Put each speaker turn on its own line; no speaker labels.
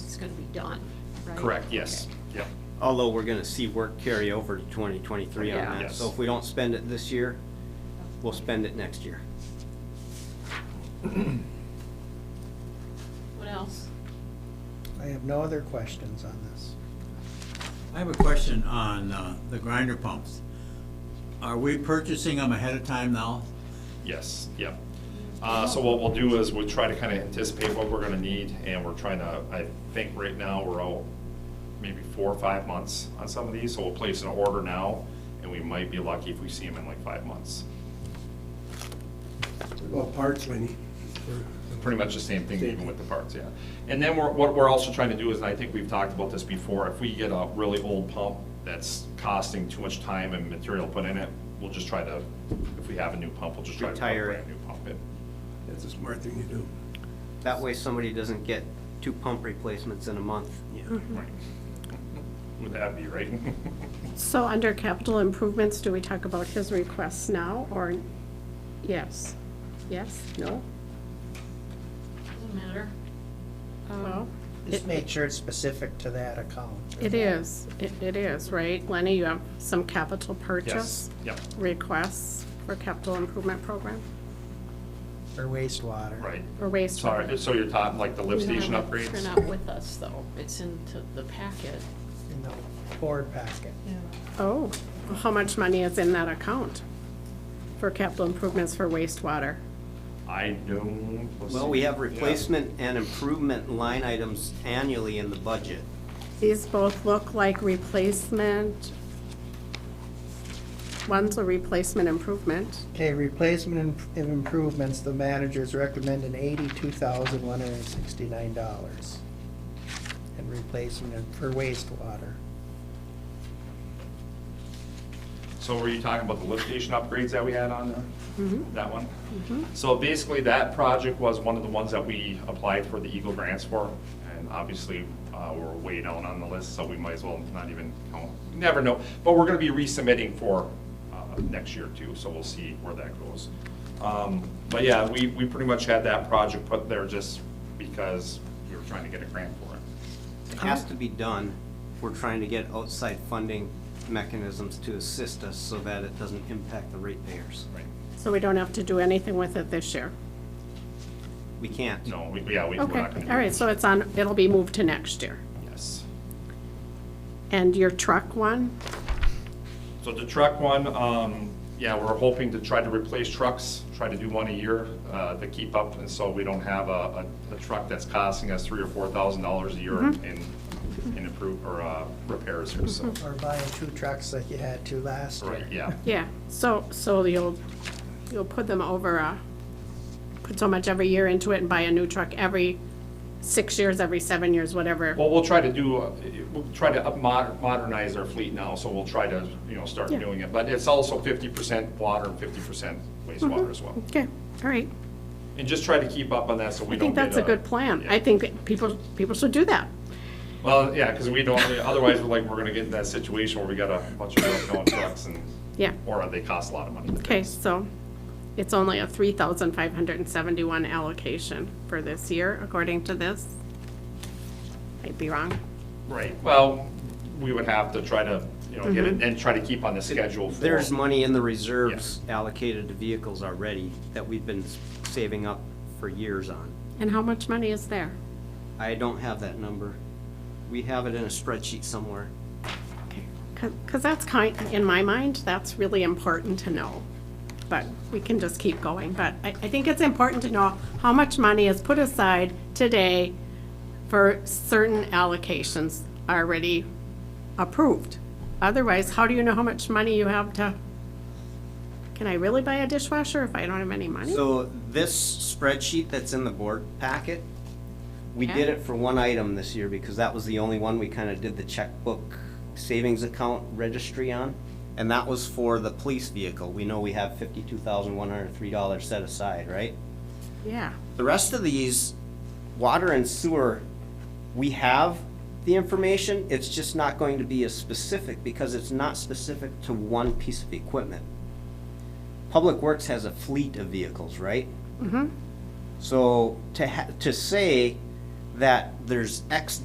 gonna be done, right?
Correct, yes,
Okay.
yep.
Although we're gonna see work carry over to twenty twenty-three
Yeah.
on that, so
Yes.
if we don't spend it this year, we'll spend it next year.
What else?
I have no other questions on this.
I have a question on uh, the grinder pumps. Are we purchasing them ahead of time now?
Yes, yep. Uh, So what we'll do is we'll try to kind of anticipate what we're gonna need, and we're trying to, I think right now, we're out maybe four or five months on some of these, so we'll place an order now, and we might be lucky if we see them in like five months.
Well, parts, Lenny.
Pretty much the same thing even with the parts, yeah. And then we're, what we're also trying to do is, and I think we've talked about this before, if we get a really old pump that's costing too much time and material put in it, we'll just try to, if we have a new pump, we'll just try to put a
Retire it.
brand new pump in.
That's a smart thing to do.
That way somebody doesn't get two pump replacements in a month.
Right. Would that be right?
So under capital improvements, do we talk about his requests now, or yes? Yes, no?
Doesn't matter.
Well,
Just make sure it's specific to that account.
it is, it it is, right? Lenny, you have some capital purchase?
Yep,
Requests for capital improvement program
For wastewater.
right.
or waste?
Sorry, so you're talking like the lift
We don't
station
have a
upgrades?
Printout with us, though. It's into the packet.
In the board packet.
Oh, well, how much money is in that account for capital improvements for wastewater?
I don't. let's
Well,
see.
we have
Yeah.
replacement and improvement line items annually in the budget.
These both look like replacement. One's a replacement improvement.
Okay, replacement and im- improvements, the managers recommending eighty-two thousand one hundred and sixty-nine dollars. And replacement for wastewater.
So were you talking about the lift station upgrades that we had on there?
Mhm.
That one? So basically, that project was one of the ones that we applied for the Eagle grants for. And obviously, uh, we're way down on the list, so we might as well not even, count. You never know. But we're gonna be resubmitting for, uh, next year too, so we'll see where that goes. Um, But yeah, we, we pretty much had that project put there just because we were trying to get a grant for it.
It has to be done. We're trying to get outside funding mechanisms to assist us so that it doesn't impact the ratepayers.
Right.
So we don't have to do anything with it this year?
We can't.
No, we, yeah, we, we're
Okay,
not gonna. do
all right,
it.
so it's on, it'll be moved to next year.
Yes.
And your truck one,
So the truck one, um, yeah, we're hoping to try to replace trucks, try to do one a year, uh, to keep up, and so we don't have a, a, a truck that's costing us three or four thousand dollars a year
Mm-hmm.
in, in improve, or, uh, repairs here, so.
Mm-hmm.
Or buying two trucks like you had to last year.
Right, yeah,
yeah, so, so you'll, you'll put them over, uh, put so much every year into it and buy a new truck every six years, every seven years, whatever.
well, we'll try to do, uh, we'll try to up mod- modernize our fleet now, so we'll try to, you know, start
Yeah.
doing it, but it's also fifty percent water and fifty percent wastewater
Mm-hmm.
as well.
Okay, all right.
And just try to keep up on that, so we don't
I think
get
that's a good plan. I think that people, people should do that.
Well, yeah, because we don't, otherwise, we're like, we're gonna get in that situation where we got a bunch of broken down trucks and.
Yeah.
Or they cost a lot of money.
Okay, so it's only a three thousand five hundred and seventy-one allocation for this year, according to this. Might be wrong.
Right, well, we would have to try to, you know, get it and try to keep on the schedule for.
There's money in the reserves allocated to vehicles already that we've been saving up for years on.
And how much money is there?
I don't have that number. We have it in a spreadsheet somewhere.
Because that's kind, in my mind, that's really important to know. But we can just keep going. But I, I think it's important to know how much money is put aside today for certain allocations already approved. Otherwise, how do you know how much money you have to, can I really buy a dishwasher if I don't have any money?
So this spreadsheet that's in the board packet, we did
Okay.
it for one item this year because that was the only one we kind of did the checkbook savings account registry on. And that was for the police vehicle. We know we have fifty-two thousand one hundred three dollars set aside, right?
Yeah.
The rest of these, water and sewer, we have the information, it's just not going to be as specific because it's not specific to one piece of equipment. Public Works has a fleet of vehicles, right? Mm-hmm. So to ha, to say that there's X